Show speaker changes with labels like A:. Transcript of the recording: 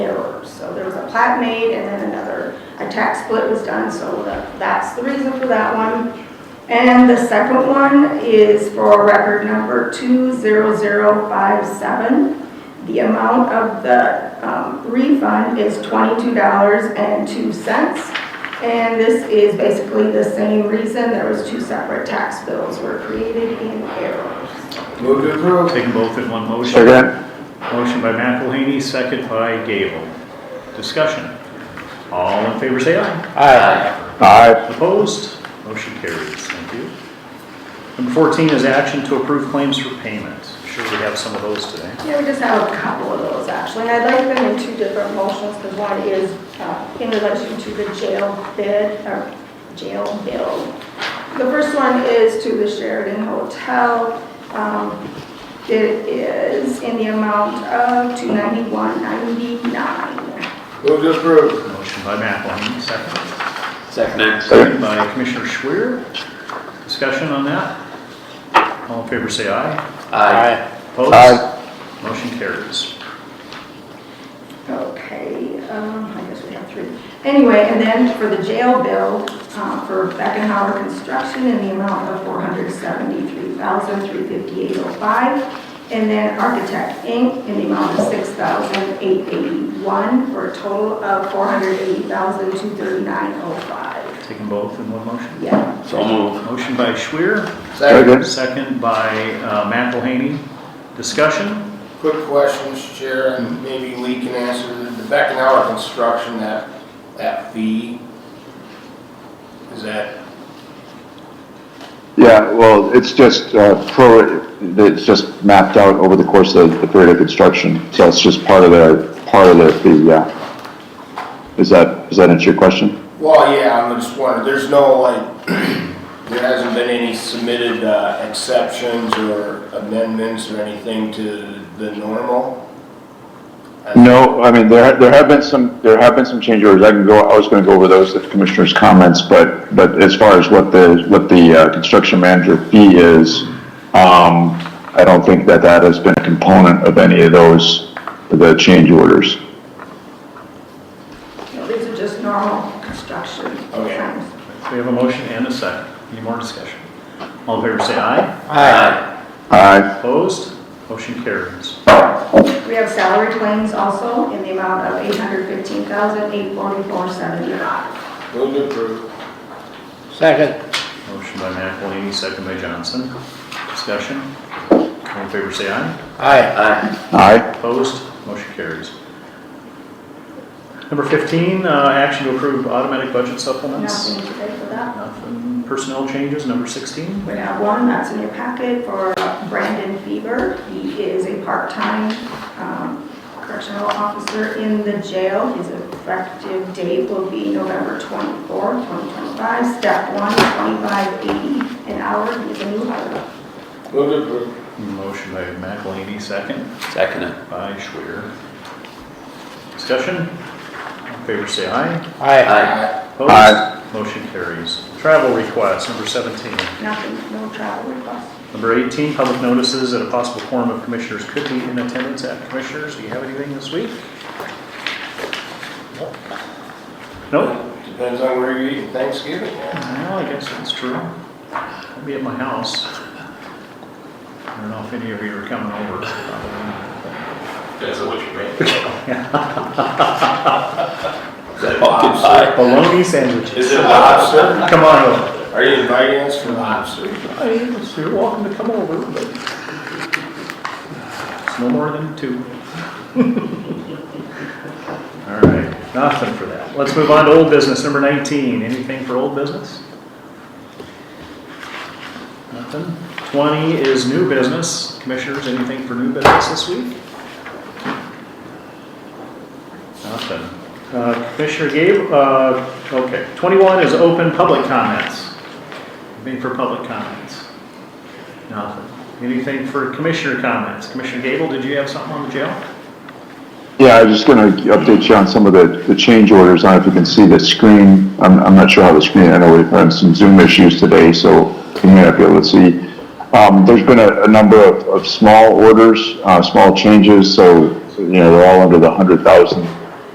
A: plat made and then another, a tax split was done, so that- that's the reason for that one. And the second one is for record number 20057. The amount of the um, refund is $22.02. And this is basically the same reason, there was two separate tax bills were created in errors.
B: Move to approve.
C: Take them both in one motion.
D: Second.
C: Motion by McElhaney, second by Gable. Discussion. All in favor, say aye.
D: Aye. Aye.
C: Opposed? Motion carries. Thank you. Number 14 is action to approve claims for payment. I'm Sure we have some of those today.
A: Yeah, we just have a couple of those actually, and I'd like them in two different motions, because one is uh, in relation to the jail bid, or jail bill. The first one is to the Sheridan Hotel. Um, It is in the amount of two ninety-one ninety-nine.
B: Move to approve.
C: Motion by McElhaney, second.
E: Second.
C: Second by Commissioner Schwer. Discussion on that. All in favor, say aye.
E: Aye.
C: Opposed?
D: Aye.
C: Motion carries.
A: Okay, um, I guess we have three. Anyway, and then for the jail bill, uh, for Beckenhauer Construction in the amount of four hundred seventy-three thousand, three fifty-eight oh five. And then Architect Inc. in the amount of six thousand, eight eighty-one, for a total of four hundred eighty thousand, two thirty-nine oh five.
C: Take them both in one motion.
A: Yeah,
E: So move.
C: Motion by Schwer,
B: Second.
C: Second by uh, McElhaney. Discussion?
B: Quick questions, Chair, and maybe Lee can answer. The Beckenauer construction, that, that fee, is that,
D: Yeah, well, it's just, uh, pro, it's just mapped out over the course of the period of construction, so it's just part of their, part of their fee, yeah. Is that, does that answer your question?
B: well, yeah, I'm just wondering, there's no, like, there hasn't been any submitted uh, exceptions or amendments or anything to the normal?
D: No, I mean, there, there have been some, there have been some change orders, I can go, I was gonna go over those with commissioners' comments, but, but as far as what the, what the, uh, construction manager fee is, um, I don't think that that has been a component of any of those, the change orders.
A: No, these are just normal construction
B: Okay.
A: times.
C: We have a motion and a second. Any more discussion? All in favor, say aye.
E: Aye.
D: Aye.
C: Opposed? Motion carries.
A: We have salary claims also in the amount of eight hundred fifteen thousand, eight forty-four seventy-five.
B: Move to approve.
E: Second.
C: Motion by McElhaney, second by Johnson. Discussion? All in favor, say aye.
E: Aye. Aye.
D: Aye.
C: Opposed? Motion carries. Number 15, uh, action to approve automatic budget supplements.
A: Nothing today for that.
C: Nothing. Personnel changes, number 16.
A: We have one that's in your packet for Brandon Fever. He is a part-time um, correctional officer in the jail. His effective date will be November 24, 2025, step one, 2580 an hour. He's a new hire.
B: Move to approve.
C: Motion by McElhaney, second.
E: Second it.
C: By Schwer. Discussion? All in favor, say aye.
E: Aye.
B: Aye.
C: Opposed?
D: Aye.
C: Motion carries. Travel requests, number 17.
A: Nothing, no travel request.
C: Number 18, public notices that a possible quorum of commissioners could be in attendance at commissioners. Do you have anything this week? Nope?
B: Depends on where you're eating Thanksgiving. yeah.
C: Well, I guess that's true. I'll be at my house. I don't know if any of you are coming over.
F: Depends on what you make.
E: Pumpkin pie.
C: Bologna sandwiches.
F: Is it lobster?
B: Lobster?
C: Come on over.
B: Are you inviting us for lobster?
C: I mean, you're welcome to come over, but it's no more than two. All right, nothing for that. Let's move on to old business, number 19. Anything for old business? Nothing. 20 is new business. Commissioners, anything for new business this week? Nothing. Uh, Commissioner Gabe, uh, okay. 21 is open public comments. Anything for public comments? Nothing. Anything for commissioner comments? Commissioner Gable, did you have something on the jail?
D: Yeah, I'm just gonna update you on some of the, the change orders. I don't know if you can see the screen. I'm, I'm not sure how the screen, I know we've had some Zoom issues today, so you may not be able to see. Um, there's been a, a number of, of small orders, uh, small changes, so, so, you know, they're all under the hundred thousand